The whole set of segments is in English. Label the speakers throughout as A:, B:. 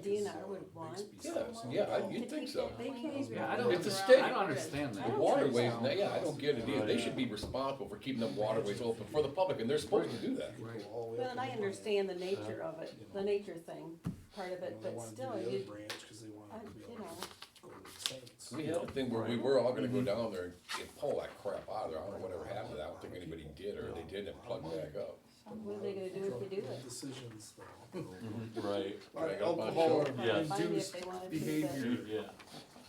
A: DNR would want
B: Yeah,
A: someone
B: yeah, I-
A: to
B: you'd think
A: keep
B: so.
A: that vacation.
C: Yeah, I don't,
B: It's a
C: I
B: state.
C: don't understand
A: I
B: The
A: don't
C: that.
B: waterways,
A: think
B: and they- yeah, I don't get it either, they should be responsible for keeping them waterways open for the public, and they're supposed to do that.
C: Right.
A: Well, and I understand the nature of it, the nature thing, part of it, but still,
D: you.
A: you,
D: Branch, cause they
A: I,
D: wanted to be
A: you
D: able
A: know,
D: to go to the States.
B: We had a thing where we were all gonna go down there and get- pull that crap out of there, I don't know whatever happened to that, I don't think anybody did, or they did and plugged back up.
A: what are they gonna do if you do it?
D: Decisions though.
E: Right,
B: Like up on
D: Alcohol
B: shore.
E: Yes.
A: Find if
D: induced
A: they wanted to,
D: behavior.
A: but
E: yeah.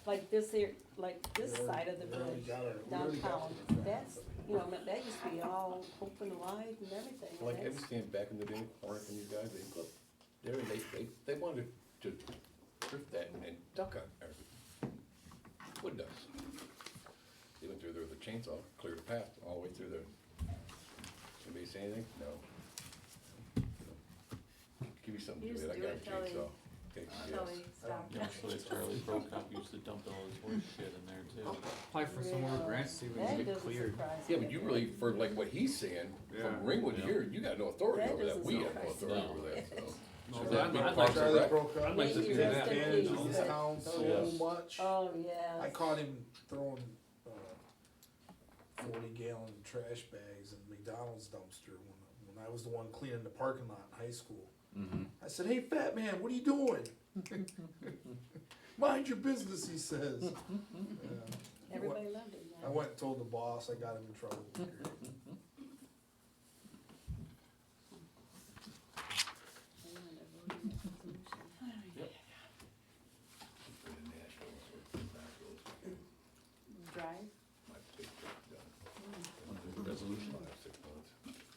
A: like this here, like this
D: We already-
A: side of the
D: we already
A: bridge
D: got our- we already got
A: downtown,
D: our friends.
A: that's, you know, but that used to be all open wide and everything,
B: Like,
A: and
B: have you
A: that's,
B: seen back in the day, Clark and these guys, they, look, they, they, they, they wanted to drift that and then duck on everything. Wood ducks. They went through there with a chainsaw, cleared a path all the way through there. Anybody say anything? No. Give me something to do
F: Used
B: with, I
F: to
B: got a
F: do it till they-
B: chainsaw. Okay,
F: Until
B: yes.
F: we stopped.
E: Actually, Charlie Prokop used to dump all his horse shit in there too.
C: Apply for some more grants, see if we
A: that
C: can get
A: doesn't
C: cleared.
A: surprise
B: Yeah,
A: me.
B: but you really, for like what he's saying,
G: Yeah.
B: from Ringwood
E: Yeah.
B: here, you got no authority
A: That
B: over that,
A: doesn't
B: we have no
A: surprise
B: authority
E: me.
B: over that, so.
C: No,
B: Should
C: I'd-
B: that be
C: I'd
B: part
C: like
B: of
C: Charlie
B: that?
C: I'd like to
A: Maybe
C: do
A: just
C: that.
A: a
D: Managed
A: piece
D: this
A: that-
D: town so
E: Yes.
D: much.
A: Oh,
D: I
A: yes,
D: caught him throwing uh, forty gallon trash bags in McDonald's dumpster when, when I was the one cleaning the parking lot in high school. I said, "Hey, fat man, what are you doing?" Mind your business, he says. Yeah.
A: everybody loved it, yeah.
D: I went and told the boss. I got him in trouble. later.
A: Hang on, I voted yes resolution. Drive,
E: Resolution.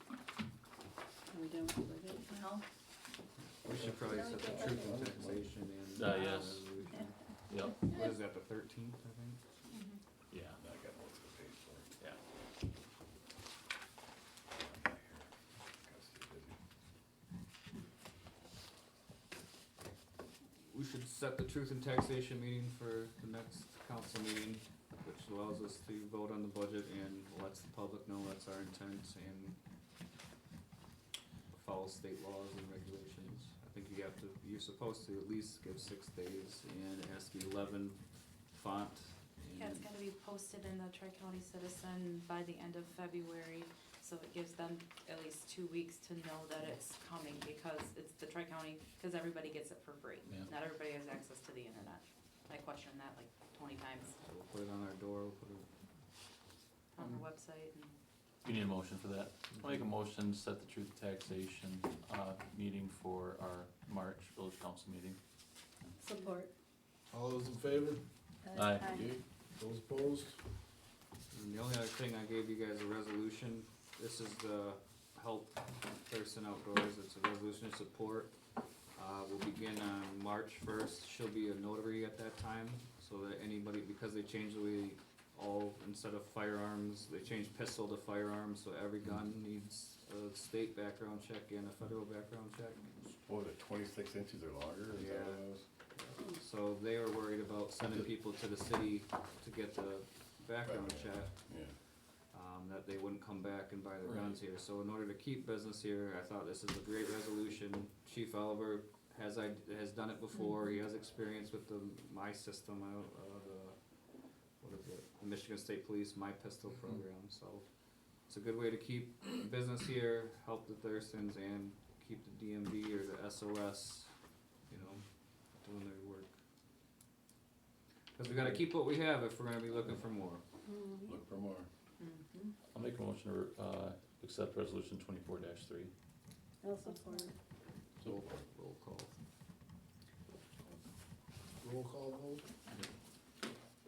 A: are we done with it?
F: No,
C: We should probably set the truth in taxation and.
E: Uh, yes.
C: resolution.
E: Yep,
C: What is that, the thirteenth, I think?
E: yeah, yeah.
C: We should set the truth and taxation meeting for the next council meeting, which allows us to vote on the budget and lets the public know that's our intent and follow state laws and regulations. I think you have to, you're supposed to at least give six days and it has to be eleven font
F: yeah,
C: and
F: it's gotta be posted in the Tri-County Citizen by the end of February, so it gives them at least two weeks to know that it's coming, because it's the Tri-County, cause everybody gets it for free.
E: Yeah.
F: Not everybody has access to the internet. I questioned that like twenty times
C: we'll put it on our door, we'll put it,
F: on the website and.
E: You need a motion for that? I'll make a motion, to set the truth taxation, uh, meeting for our March village council meeting.
A: Support.
D: All those in favor?
E: Aye.
D: Those opposed?
C: and the only other thing, I gave you guys a resolution, this is the help person outdoors, it's a resolution of support. Uh, will begin on March first, she'll be a notary at that time, so that anybody, because they changed the way all, instead of firearms, they changed pistol to firearms, so every gun needs a state background check and a federal background check.
B: What, the twenty-six inches or longer, is that what it was?
C: So they were worried about sending people to the city to get the background
B: Right.
C: check.
B: Yeah.
C: um, that they wouldn't come back and buy their
E: Right.
C: guns here. So in order to keep business here, I thought this is a great resolution. Chief Oliver has I, has done it before. He has experience with the my system, uh, uh, the what is it, the Michigan State Police My Pistol program. So it's a good way to keep business here, help the Thurston's, and keep the DMV or the SOS, you know, doing their work. Because we got to keep what we have if we're going to be looking for more.
B: Look for more.
F: Mhm.
E: I'll make a motion to, uh, accept resolution twenty-four three.
A: I'll support.
C: So roll call.
D: Roll call vote?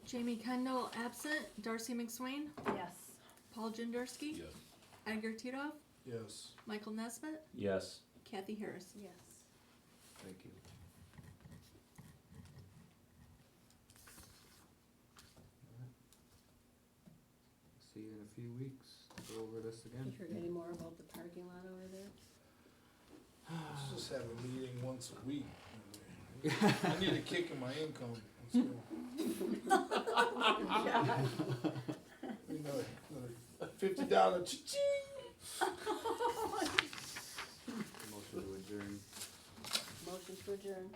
H: Jamie Kendall absent, Darcy McSwain,
F: Yes.
H: Paul Jendersky,
B: Yes.
H: Edgar Titoff,
D: Yes.
H: Michael Nesbitt,
E: Yes.
H: Kathy Harris.
F: Yes.
C: Thank you. See you in a few weeks, go over this
A: You
C: again.
A: heard any more about the parking lot over there?
D: Let's just have a meeting once a week. I need a kick in my income. Let's go. Another- another Fifty dollar cha-ching.
C: Motion to adjourn.
A: Motion to adjourn.